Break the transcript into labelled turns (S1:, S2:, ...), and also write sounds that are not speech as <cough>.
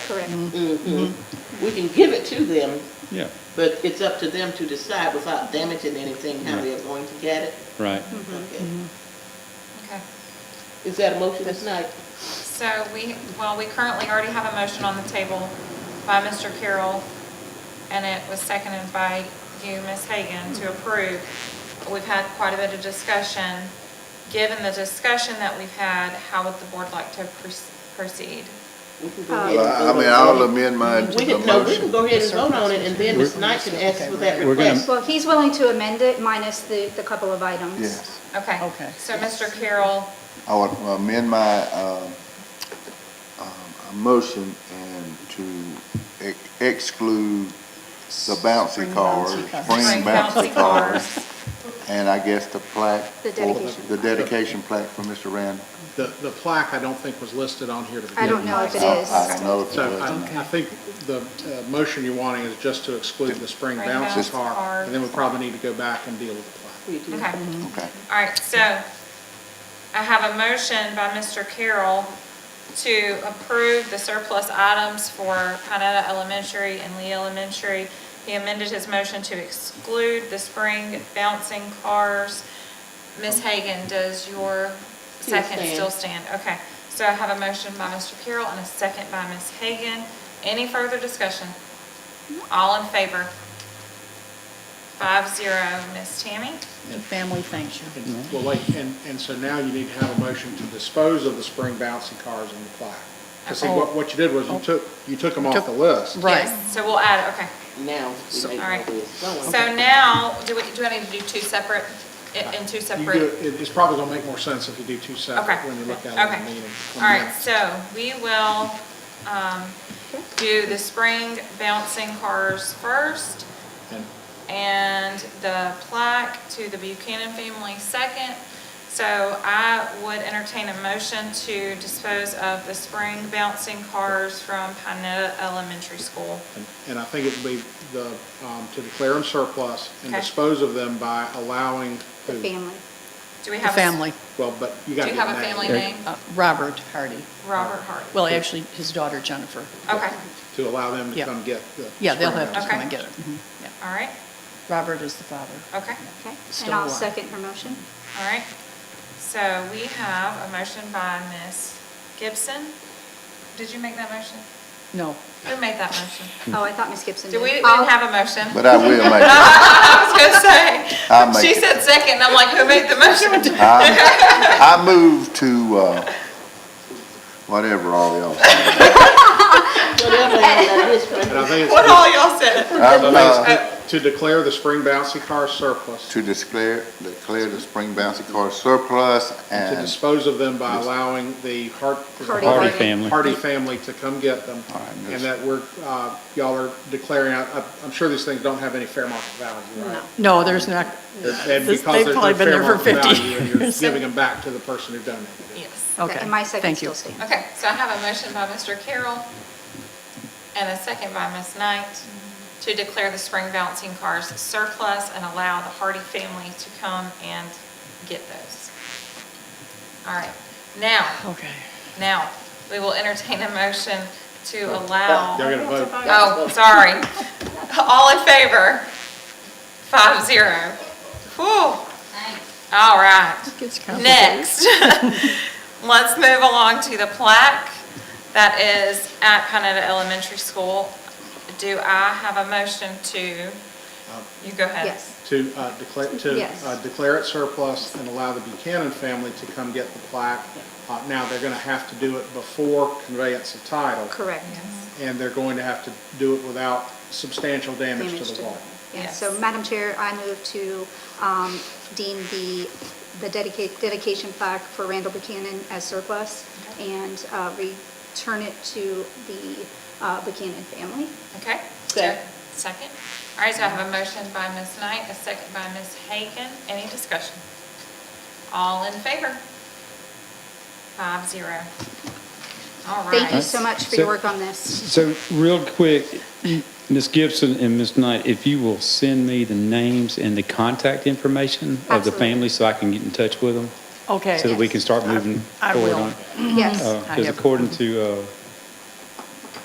S1: Correct.
S2: Mm-hmm. We can give it to them,
S3: Yeah,
S2: but it's up to them to decide without damaging anything how they are going to get it.
S3: right.
S2: Okay.
S1: Okay.
S2: Is that a motion tonight?
S1: So we, well, we currently already have a motion on the table by Mr. Carroll, and it was seconded by you, Ms. Hagan, to approve. We've had quite a bit of discussion. Given the discussion that we've had, how would the board like to proce- proceed?
S2: We can go ahead and
S4: Well, I I
S2: vote
S4: mean,
S2: on
S4: I'll
S2: it.
S4: amend mine
S2: We
S4: to the
S2: can, no, we
S4: motion.
S2: can go ahead and vote on it, and then Ms. Knight can ask for that
S3: We're gonna-
S2: request.
S5: Well, he's willing to amend it minus the, the couple of items.
S4: Yes,
S1: Okay.
S6: Okay.
S1: So Mr. Carroll,
S4: I would amend my, um, um, motion and to ex- exclude the bouncy
S6: Spring bouncy
S4: cars,
S6: cars.
S4: spring
S1: Spring
S4: bouncy
S1: bouncy
S4: cars, and I guess the plaque.
S5: The
S4: for-
S5: dedication.
S4: The dedication plaque for Mr. Randall.
S7: The, the plaque, I don't think was listed on here to begin
S5: I don't
S7: with.
S5: know if Oh, it
S4: I-
S5: is.
S4: I don't know if it
S7: So I,
S4: was.
S7: I think the uh, motion you're wanting is just to exclude the spring
S1: Spring
S7: bouncy
S1: bouncy
S7: car,
S1: cars.
S7: and then we probably need to go back and deal with the plaque.
S2: We do.
S1: okay.
S4: Okay.
S1: All right, so I have a motion by Mr. Carroll to approve the surplus items for Pinetta Elementary and Lee Elementary. He amended his motion to exclude the spring bouncing cars. Ms. Hagan, does your second
S2: stand.
S1: still stand? Okay, so I have a motion by Mr. Carroll and a second by Ms. Hagan. Any further discussion? All in favor? Five zero, Ms. Tammy?
S6: The family thanks you.
S7: And- Well, wait, and, and so now you need to have a motion to dispose of the spring bouncy cars and the plaque. 'Cause see, what, what you did was you took, you took them off the list.
S6: Right.
S1: Yes, So we'll add, okay.
S2: Now, we may know where
S1: all right.
S2: it's going.
S1: So now, do we, do I need to do two separate, in in two
S7: You
S1: separate?
S7: do, it- it's probably gonna make more sense if you do two separate
S1: Okay.
S7: when you look at it in the
S1: Okay.
S7: meeting.
S1: All right, so we will um, do the spring bouncing cars first
S7: And
S1: and the plaque to the Buchanan family second. So I would entertain a motion to dispose of the spring bouncing cars from Pinetta Elementary School.
S7: And- And I think it would be the, um, to declare them surplus and
S1: Okay.
S7: dispose of them by allowing,
S5: The
S7: who-
S5: family.
S1: Do we
S6: The
S1: have? a s-
S6: family,
S7: well, but you
S1: Do
S7: gotta
S1: you
S7: get
S1: have a family name?
S6: uh, Robert Hardy.
S1: Robert Hardy.
S6: Well, actually, his daughter Jennifer.
S1: Okay,
S7: To allow them to
S6: Yeah.
S7: come get the.
S6: Yeah, they'll
S7: spring
S6: have to
S7: bouncy.
S6: come and get it. Mhm, yeah.
S1: all right,
S6: Robert is the father.
S1: okay,
S5: Okay.
S6: Still
S5: And I'll
S6: alive.
S5: second her motion.
S1: all right. So we have a motion by Ms. Gibson. Did you make that motion?
S6: No,
S1: Who made that motion?
S5: Oh, I thought Ms. Gibson did.
S1: Did we, we
S5: I'll-
S1: didn't have a motion?
S4: But I will make it.
S1: <laughs> I was gonna say,
S4: I'll make
S1: she
S4: it.
S1: said second, and I'm like, who made the
S4: <laughs>
S1: motion?
S4: I I move to, uh, whatever all y'all say.
S2: Whatever that is,
S7: And I think
S1: What
S7: it's,
S1: all y'all said?
S4: I'm, uh,
S7: to declare the spring bouncy car surplus,
S4: To declare, declare the spring bouncy car surplus
S7: to
S4: and
S7: dispose of them by allowing the Hart.
S5: Hardy.
S3: Hardy family.
S7: Hardy family to come get them.
S4: All right,
S7: And
S4: yes.
S7: that we're, uh, y'all are declaring, I- I'm- I'm sure these things don't have any fair market value, right?
S6: no, there's not,
S7: And
S6: This-
S7: because
S6: they've
S7: there's no
S6: probably been
S7: fair
S6: there for
S7: market
S6: 50
S7: value, and You're
S6: years.
S7: giving them back to the person who donated it.
S1: Yes.
S6: okay.
S5: And my second
S6: Thank you.
S5: still stands.
S1: Okay, so I have a motion by Mr. Carroll and a second by Ms. Knight to declare the spring bouncing cars surplus and allow the Hardy family to come and get those. All right, now,
S6: <laughs> Okay.
S1: now, we will entertain a motion to allow,
S7: Y'all gotta vote.
S1: oh, sorry. All in favor? Five zero. Whew. All right.
S6: Gets complicated.
S1: Next, <laughs> let's move along to the plaque that is at Pinetta Elementary School. Do I have a motion to, you go ahead.
S5: Yes.
S7: to uh, declare, to
S5: Yes.
S7: uh, declare it surplus and allow the Buchanan family to come get the plaque. Uh, Now, they're going to have to do it before conveyance of title,
S5: Correct.
S7: and they're going to have to do it without substantial damage
S5: Damage
S7: to the wall.
S5: Yeah,
S1: Yes.
S5: so Madam Chair, I move to um, deem the, the dedicate, dedication plaque for Randall Buchanan as surplus and uh, return it to the uh, Buchanan family.
S1: Okay?
S2: Second.
S1: Second. All right, so I have a motion by Ms. Knight, a second by Ms. Hagan. Any discussion? All in favor? Five zero. All right.
S5: Thank you so much for your
S3: So-
S5: work on
S3: <clears throat>
S5: this.
S3: So real quick, Ms. Gibson and Ms. Knight, if you will send me the names and the contact information of the
S5: Absolutely.
S3: family so I can get in touch with them,
S6: Okay.
S3: so that we can start moving
S6: I
S3: forward
S6: will.
S3: on it.
S5: Yes.
S3: Because
S6: have-
S3: according to uh,